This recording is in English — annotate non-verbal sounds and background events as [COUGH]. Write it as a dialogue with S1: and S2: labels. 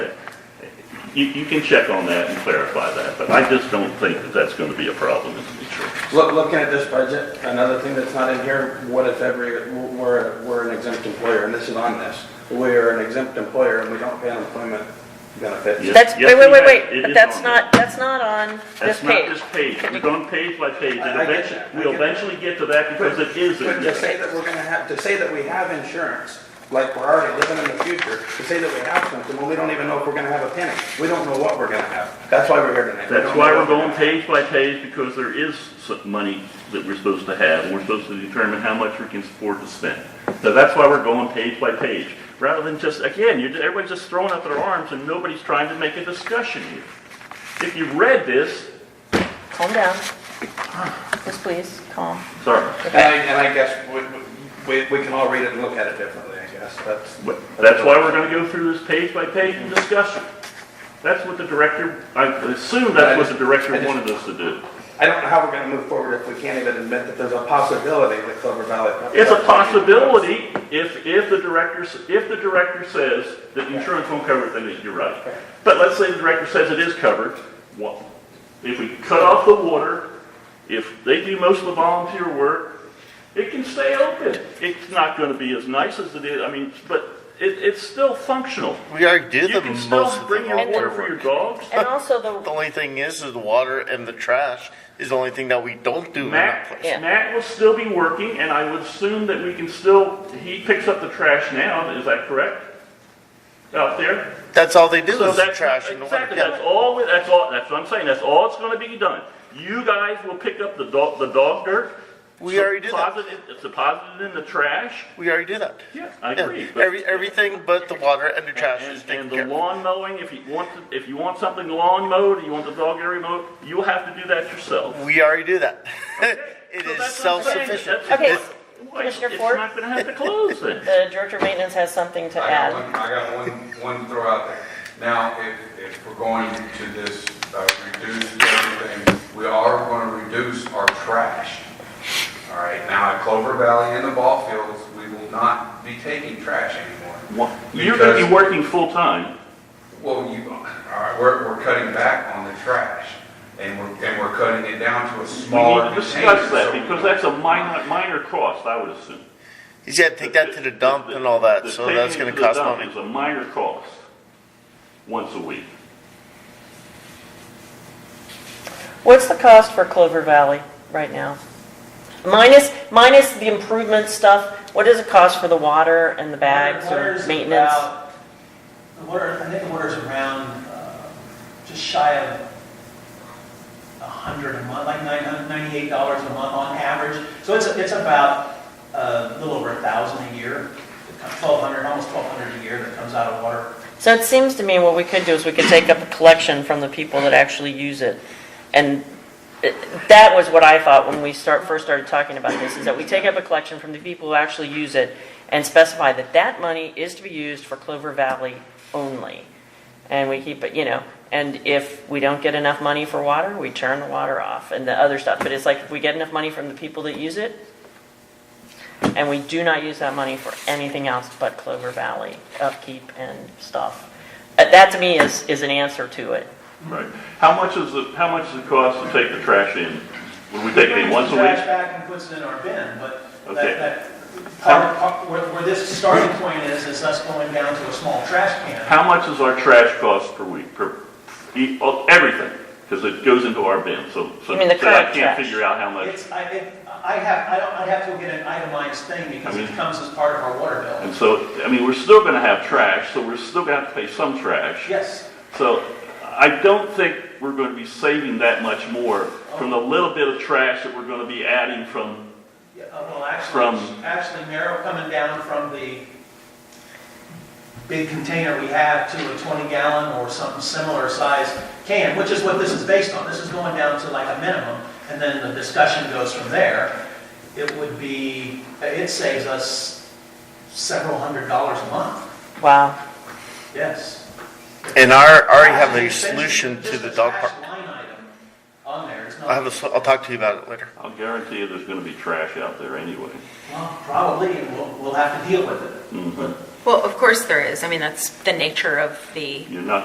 S1: you, you can check on that and clarify that, but I just don't think that that's going to be a problem in the future.
S2: Look, looking at this budget, another thing that's not in here, what if every, we're, we're an exempt employer, and this is on this. We're an exempt employer and we don't pay unemployment benefits.
S1: Yes,
S3: That's,
S1: yes,
S3: wait, wait,
S1: you
S3: wait,
S1: have. It
S3: wait,
S1: is
S3: that's
S1: on
S3: not, that's not on this
S1: That's not
S3: page.
S1: this page, we're going page by page, and
S2: I- I get
S1: eventually,
S2: that, I
S1: we'll
S2: get that.
S1: eventually get to that because it is in
S2: But to
S1: there.
S2: say that we're gonna have, to say that we have insurance, like we're already living in the future, to say that we have something, when we don't even know if we're gonna have a penny. We don't know what we're gonna have. That's why we're here tonight. We
S1: That's
S2: don't
S1: why
S2: know
S1: we're
S2: what gonna
S1: going
S2: have.
S1: page by page, because there is some money that we're supposed to have, and we're supposed to determine how much we can afford to spend. So that's why we're going page by page, rather than just, again, you're, everybody's just throwing out their arms and nobody's trying to make a discussion here. If you read this, [SIGHS]
S3: Calm down. Just please, calm.
S1: sorry,
S2: And I, and I guess we, we, we can all read it and look at it differently, I guess, that's.
S1: but that's why we're gonna go through this page by page and discuss it. That's what the director, I assume that's what the director wanted us to do.
S2: I don't know how we're gonna move forward if we can't even admit that there's a possibility that Clover Valley.
S1: It's a possibility if, if the director, s- if the director says that insurance won't cover it, then you're right. But let's say the director says it is covered, well, if we cut off the water, if they do most of the volunteer work, it can stay open. It's not gonna be as nice as it is, I mean, but it, it's still functional.
S4: We already do
S1: You
S4: the
S1: can
S4: most
S1: still
S4: of
S1: bring
S4: the
S1: your water
S4: volunteer
S1: for your
S4: work.
S1: dogs.
S3: And also the,
S4: The only thing is, is the water and the trash is the only thing that we don't do in
S1: Matt,
S4: that place.
S3: Yeah.
S1: Matt will still be working, and I would assume that we can still, he picks up the trash now, is that correct? Out there?
S4: That's all they do
S1: So
S4: is the
S1: that's-
S4: trash and the water.
S1: Exactly,
S4: Yeah.
S1: that's all, we- that's all, that's what I'm saying, that's all that's gonna be done. You guys will pick up the dog, the dog dirt.
S4: We already did that.
S1: deposit it- It's deposited in the trash.
S4: We already do that.
S1: Yeah, I
S4: Yeah.
S1: agree. but-
S4: Every, everything but the water and the trash
S1: and-
S4: is taken
S1: And
S4: care
S1: the
S4: of.
S1: lawn mowing, if you want, to- if you want something lawn mowed, or you want the dog area mowed, you'll have to do that yourself.
S4: We already do that. [LAUGHS] It
S1: So
S4: is
S1: that's what I'm saying,
S4: self-sufficient.
S1: that's-
S3: Okay,
S1: that's why
S3: Commissioner
S1: It's
S3: Ford?
S1: not gonna have to close
S3: [LAUGHS]
S1: then.
S3: the director of maintenance has something to
S5: I got
S3: add.
S5: one, I got one, one throw out there. Now, if, if we're going to this, uh, reduce everything, we are gonna reduce our trash. All right, now at Clover Valley and the ball fields, we will not be taking trash anymore.
S1: You're gonna be
S5: Because-
S1: working full-time.
S5: Well, you, all right, we're, we're cutting back on the trash, and we're, and we're cutting it down to a
S1: We need
S5: smaller
S1: to
S5: container.
S1: discuss
S5: so
S1: that,
S5: we
S1: because
S5: don't-
S1: that's a minor, minor cost, I would assume.
S4: You gotta take that to the dump and all that,
S1: The
S4: so
S1: taking
S4: that's
S1: it
S4: gonna
S1: to the
S4: cost
S1: dump
S4: money.
S1: is a minor cost, once a week.
S3: What's the cost for Clover Valley right now? Minus, minus the improvement stuff, what does it cost for the water and the bags
S6: Water's
S3: or maintenance?
S6: about- The water, I think the water's around, uh, just shy of a hundred a month, like nine hundred, ninety-eight dollars a month on average. So it's, it's about uh, a little over a thousand a year, twelve hundred, almost twelve hundred a year that comes out of water.
S3: So it seems to me what we could do is we could take up a collection from the people that actually use it. And it- that was what I thought when we start, first started talking about this, is that we take up a collection from the people who actually use it and specify that that money is to be used for Clover Valley only. And we keep it, you know, and if we don't get enough money for water, we turn the water off and the other stuff. But it's like, if we get enough money from the people that use it, and we do not use that money for anything else but Clover Valley upkeep and stuff. Uh, That to me is, is an answer to it.
S1: Right. How much is the, how much does it cost to take the trash in? Would we take it in
S6: Brings
S1: once a
S6: the Trash
S1: week?
S6: back and puts it in our bin, but
S1: Okay.
S6: that, that, part, part- where, where this starting point is, is us going down to a small trash can.
S1: How much is our trash cost per week, per, e- oh, everything? Because it goes into our bin, so, so
S3: You mean the
S1: so I
S3: current
S1: can't
S3: trash?
S1: figure out how much.
S6: It's, I, it, I have, I don't, I have to get an itemized thing because
S1: I
S6: it
S1: mean-
S6: comes as part of our water bill.
S1: And so, I mean, we're still gonna have trash, so we're still gonna have to pay some trash.
S6: Yes,
S1: So I don't think we're going to be saving that much more from the little bit of trash that we're going to be adding from,
S6: Yeah, uh, well, actually,
S1: From-
S6: actually, Merrill coming down from the big container we have to a 20 gallon or something similar size can, which is what this is based on. This is going down to like a minimum, and then the discussion goes from there. It would be, it saves us several hundred dollars a month,
S3: Wow.
S6: yes.
S4: And I already have
S6: Actually,
S4: a
S6: essentially,
S4: solution to
S6: just
S4: the
S6: a
S4: dog
S6: trash
S4: park.
S6: Line item on there, it's not.
S4: I have a, sol- I'll talk to you about it later.
S1: I'll guarantee you there's going to be trash out there anyway.
S6: Well, probably, and we'll, we'll have to deal with it.
S1: Mhm.
S6: But
S7: Well, of course there is. I mean, that's the nature of the
S1: You're not